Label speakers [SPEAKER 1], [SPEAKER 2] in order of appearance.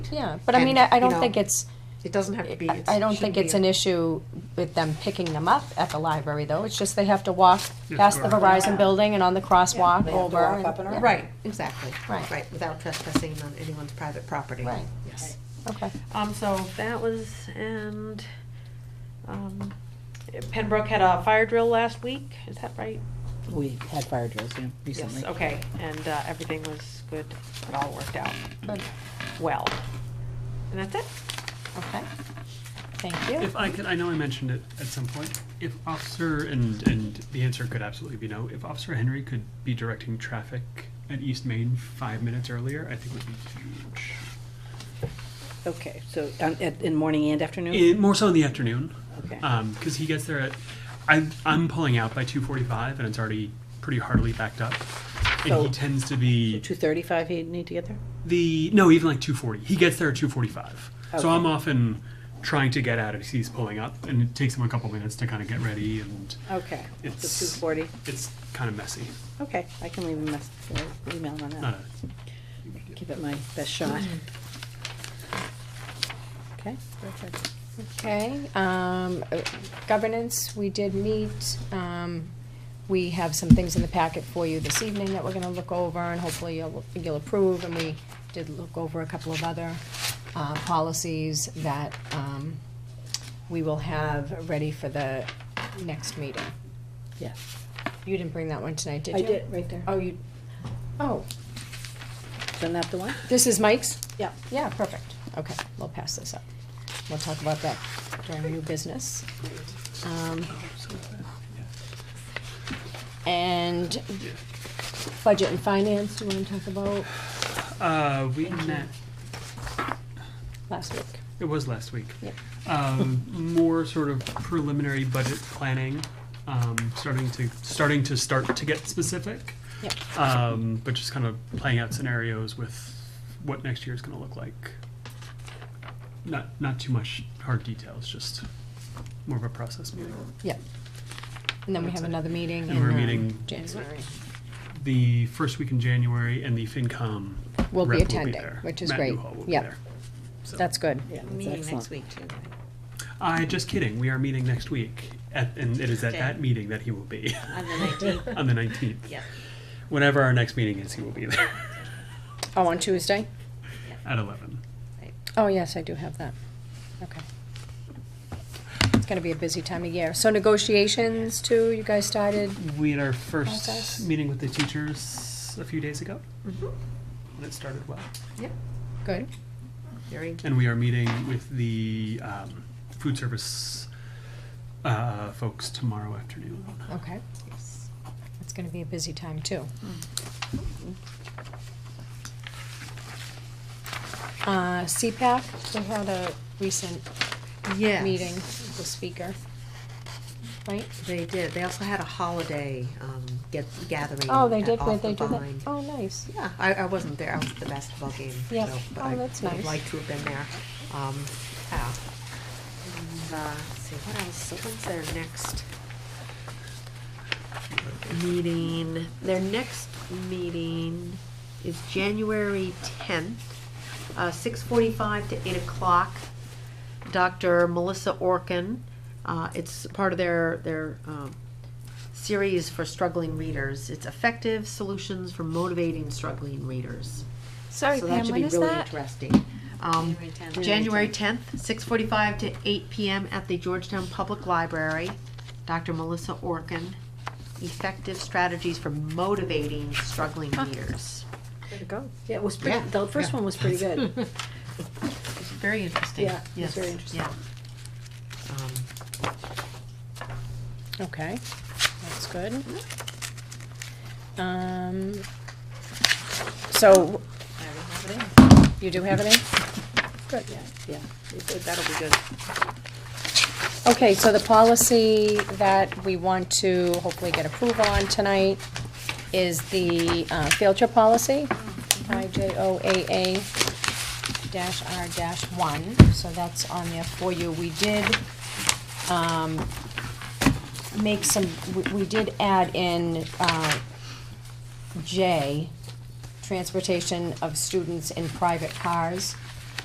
[SPEAKER 1] Yeah, but I
[SPEAKER 2] And,
[SPEAKER 1] mean, I, I
[SPEAKER 2] you
[SPEAKER 1] don't
[SPEAKER 2] know,
[SPEAKER 1] think it's,
[SPEAKER 2] It doesn't have to be.
[SPEAKER 1] I I don't think it's an issue with them picking them up at the library, though. It's just they have to walk
[SPEAKER 3] Just
[SPEAKER 1] past
[SPEAKER 3] go
[SPEAKER 1] the
[SPEAKER 3] around.
[SPEAKER 1] Verizon building and on the crosswalk
[SPEAKER 2] They have to
[SPEAKER 1] over.
[SPEAKER 4] walk
[SPEAKER 1] and-
[SPEAKER 4] up and
[SPEAKER 1] yeah,
[SPEAKER 4] around.
[SPEAKER 2] Right, exactly.
[SPEAKER 1] Right.
[SPEAKER 2] Right, without trespassing on anyone's private property.
[SPEAKER 1] Right.
[SPEAKER 2] Yes.
[SPEAKER 1] Okay.
[SPEAKER 5] Um, so that was, and, um, Pembroke had a fire drill last week, is that right?
[SPEAKER 4] We had fire drills yeah, recently.
[SPEAKER 5] Yes, okay, and, uh, everything was good, it all worked out
[SPEAKER 1] Good.
[SPEAKER 5] well. And that's it?
[SPEAKER 1] Okay. Thank you.
[SPEAKER 3] If I could, I know I mentioned it at some point. If Officer, and, and the answer could absolutely be no, if Officer Henry could be directing traffic at East Main five minutes earlier, I think would be huge.
[SPEAKER 4] Okay, so um, at- in morning and afternoon?
[SPEAKER 3] Eh, more so in the afternoon,
[SPEAKER 4] Okay.
[SPEAKER 3] because he gets there at, I, I'm pulling out by 2.45 and it's already pretty heartily backed up. And
[SPEAKER 4] So-
[SPEAKER 3] he tends to be
[SPEAKER 4] Two thirty-five he'd need to get there?
[SPEAKER 3] the no even like 2.40 he gets there at 2.45
[SPEAKER 4] Okay.
[SPEAKER 3] so i'm often trying to get out as he's pulling up and it takes him a couple minutes to kind of get ready and
[SPEAKER 4] Okay,
[SPEAKER 3] It's-
[SPEAKER 4] so two forty,
[SPEAKER 3] it's kind of messy Uh,
[SPEAKER 4] okay, I can leave a message, or email him on
[SPEAKER 3] Not
[SPEAKER 4] that,
[SPEAKER 3] a-
[SPEAKER 4] give it my best shot. Okay, perfect.
[SPEAKER 1] Okay, um, uh, governance, we did meet. Um, we have some things in the packet for you this evening that we're gonna look over and hopefully you'll, you'll approve. And we did look over a couple of other, uh, policies that, um, we will have ready for the next meeting.
[SPEAKER 4] Yes.
[SPEAKER 1] You didn't bring that one tonight, did
[SPEAKER 4] I
[SPEAKER 1] you?
[SPEAKER 4] did, right there.
[SPEAKER 1] Oh, you, oh,
[SPEAKER 4] Isn't that the one?
[SPEAKER 1] this is Mike's?
[SPEAKER 4] Yeah.
[SPEAKER 1] Yeah, perfect. Okay, we'll pass this up. We'll talk about that during new business. Um, And budget and finance, do you wanna talk about
[SPEAKER 3] uh, we met
[SPEAKER 1] last week?
[SPEAKER 3] it was last week
[SPEAKER 1] Yep.
[SPEAKER 3] um, more sort of preliminary budget planning um, starting to starting to start to get specific
[SPEAKER 1] Yep.
[SPEAKER 3] um, but just kind of playing out scenarios with what next year is going to look like not not too much hard details just more of a process meeting
[SPEAKER 1] Yep. And then we
[SPEAKER 3] That's
[SPEAKER 1] have
[SPEAKER 3] it.
[SPEAKER 1] another meeting
[SPEAKER 3] And we're
[SPEAKER 1] in
[SPEAKER 3] meeting-
[SPEAKER 1] uh, January.
[SPEAKER 3] the first week in January, and the FinCom
[SPEAKER 1] We'll be
[SPEAKER 3] rep
[SPEAKER 1] attending,
[SPEAKER 3] there.
[SPEAKER 1] which is
[SPEAKER 3] Matt
[SPEAKER 1] great.
[SPEAKER 3] Newhall will be
[SPEAKER 1] Yep.
[SPEAKER 3] there. So-
[SPEAKER 1] That's good.
[SPEAKER 4] Yeah, that's
[SPEAKER 2] Meeting
[SPEAKER 4] excellent.
[SPEAKER 2] next week too.
[SPEAKER 3] I Uh, just kidding. We are meeting next week, at, and it is at
[SPEAKER 2] Okay.
[SPEAKER 3] that meeting that he will be
[SPEAKER 2] On the nineteenth,
[SPEAKER 3] on the nineteenth.
[SPEAKER 2] Yep.
[SPEAKER 3] Whenever our next meeting is, he will be there
[SPEAKER 1] Oh, on Tuesday?
[SPEAKER 3] at eleven.
[SPEAKER 1] Oh, yes, I do have that. Okay. It's gonna be a busy time of year. So negotiations too, you guys started?
[SPEAKER 3] We had our first
[SPEAKER 1] Process.
[SPEAKER 3] meeting with the teachers a few days ago,
[SPEAKER 2] Mm-hmm.
[SPEAKER 3] and it started well.
[SPEAKER 1] Good.
[SPEAKER 2] Very
[SPEAKER 3] And we are meeting with the um, food service uh, folks tomorrow afternoon.
[SPEAKER 1] Okay. It's gonna be a busy time too. Uh, CPAC, they had a recent
[SPEAKER 2] Yes.
[SPEAKER 1] meeting, with the speaker, right?
[SPEAKER 2] They did. They also had a holiday um, get gathering.
[SPEAKER 1] Oh, they
[SPEAKER 2] at
[SPEAKER 1] did,
[SPEAKER 2] Off
[SPEAKER 1] wait, they
[SPEAKER 2] the
[SPEAKER 1] do that,
[SPEAKER 2] Vine.
[SPEAKER 1] oh, nice.
[SPEAKER 2] Yeah, I, I wasn't there. I was at the basketball game.
[SPEAKER 1] Yeah.
[SPEAKER 2] so- but
[SPEAKER 1] Oh,
[SPEAKER 2] I
[SPEAKER 1] that's
[SPEAKER 2] would
[SPEAKER 1] nice.
[SPEAKER 2] like to have been there. Um, yeah. And, uh, let's see what else. When's their next meeting? Their next meeting is January tenth, uh, six forty-five to eight o'clock. Dr. Melissa Orkin. Uh, it's part of their their um, series for struggling readers. It's effective solutions for motivating struggling readers.
[SPEAKER 1] Sorry,
[SPEAKER 2] so that
[SPEAKER 1] Pam,
[SPEAKER 2] should
[SPEAKER 1] when
[SPEAKER 2] be
[SPEAKER 1] is
[SPEAKER 2] really
[SPEAKER 1] that?
[SPEAKER 2] interesting. Um, January 10th, 6:45 to 8 p.m. at the Georgetown Public Library. Dr. Melissa Orkin. Effective strategies for motivating struggling readers.
[SPEAKER 4] Yeah, it was
[SPEAKER 2] Yeah.
[SPEAKER 4] pretty, the first
[SPEAKER 2] Yeah.
[SPEAKER 4] one was pretty good.
[SPEAKER 2] It's very interesting.
[SPEAKER 4] Yeah, it was
[SPEAKER 2] Yes,
[SPEAKER 4] very interesting.
[SPEAKER 2] yeah. Um,
[SPEAKER 1] Okay, that's good.
[SPEAKER 2] Mm-hmm.
[SPEAKER 1] Um, so. You do have any?
[SPEAKER 4] Good, yeah, yeah, It- it- that'll be good.
[SPEAKER 1] Okay, so the policy that we want to hopefully get approval on tonight is the uh, field trip policy, IJOAA dash R dash one, so that's on there for you. We did um, make some, we- we did add in uh, J, transportation of students in private cars.